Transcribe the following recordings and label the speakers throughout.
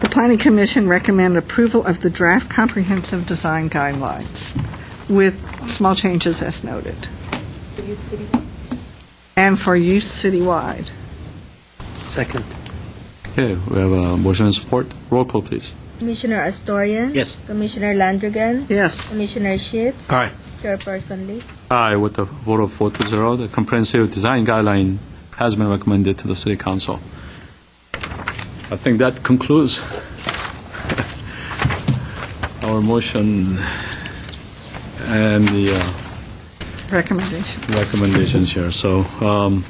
Speaker 1: The Planning Commission recommend approval of the draft comprehensive design guidelines with small changes as noted,
Speaker 2: For you, City Hall?
Speaker 1: and for use citywide.
Speaker 3: Second.
Speaker 4: Okay, we have a motion and support. Roll call, please.
Speaker 5: Commissioner Astorian.
Speaker 3: Yes.
Speaker 5: Commissioner Landrigan.
Speaker 1: Yes.
Speaker 5: Commissioner Sheets.
Speaker 3: Aye.
Speaker 5: Chairperson Lee.
Speaker 4: Aye, with a vote of four to zero, the comprehensive design guideline has been recommended to the City Council. I think that concludes our motion and the uh,
Speaker 1: Recommendation.
Speaker 4: recommendations here. So um,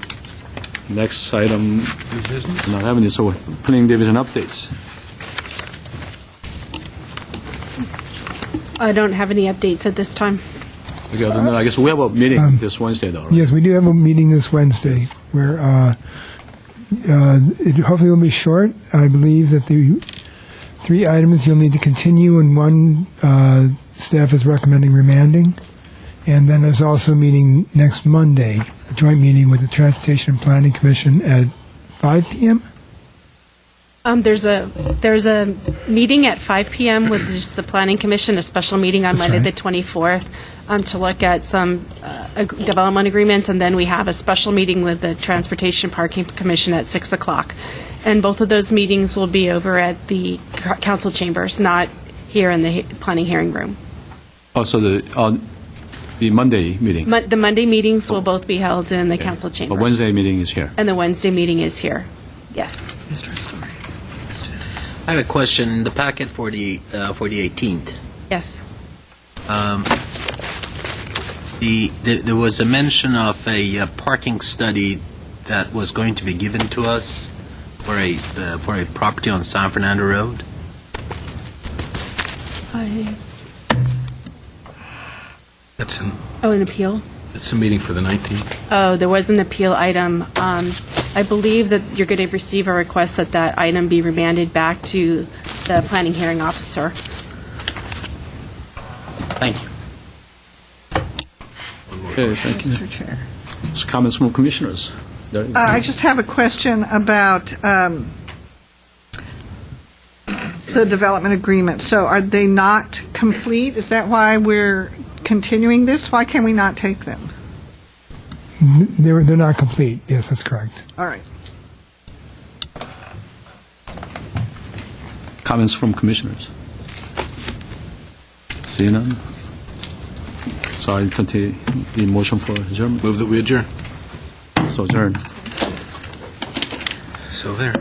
Speaker 4: next item, not having it, so planning division updates.
Speaker 6: I don't have any updates at this time.
Speaker 4: Okay, other than that, I guess we have a meeting this Wednesday, though, right?
Speaker 7: Yes, we do have a meeting this Wednesday where uh, uh, it hopefully will be short. I believe that the three items you'll need to continue and one uh, staff is recommending remanding. And then there's also a meeting next Monday, a joint meeting with the Transportation and Planning Commission at 5 p.m.
Speaker 6: Um, there's a there's a meeting at 5 p.m. with just the Planning Commission, a special meeting on
Speaker 7: That's
Speaker 6: Monday
Speaker 7: right.
Speaker 6: the 24th, um, to look at some uh, ag- development agreements, and then we have a special meeting with the Transportation Parking Commission at 6 o'clock. And both of those meetings will be over at the c- council chambers, not here in the he- planning hearing room.
Speaker 4: Also, the, uh, the Monday meeting.
Speaker 6: Mon- the Monday meetings will both be held in the council chambers.
Speaker 4: But Wednesday meeting is here.
Speaker 6: And the Wednesday meeting is here. Yes.
Speaker 1: Mr. Story.
Speaker 3: I have a question. The packet for the uh, for the 18th.
Speaker 6: Yes.
Speaker 3: The, the there was a mention of a uh, parking study that was going to be given to us for a uh, for a property on San Fernando Road.
Speaker 8: It's an,
Speaker 6: Oh, an appeal?
Speaker 8: it's a meeting for the 19th.
Speaker 6: Oh, there was an appeal item. Um, I believe that you're going to receive a request that that item be remanded back to the planning hearing officer.
Speaker 3: Thank you.
Speaker 4: Okay, thank you.
Speaker 1: Mr. Chair.
Speaker 4: It's Comments from commissioners. There-
Speaker 1: Uh, I just have a question about um, the development agreement. So are they not complete? Is that why we're continuing this? Why can we not take them?
Speaker 7: They're, they're not complete. Yes, that's correct.
Speaker 1: All right.
Speaker 4: Comments from commissioners. See none? So I entertain the motion for adjournment.
Speaker 8: Move that we adjourn.
Speaker 4: So adjourned.
Speaker 8: So there.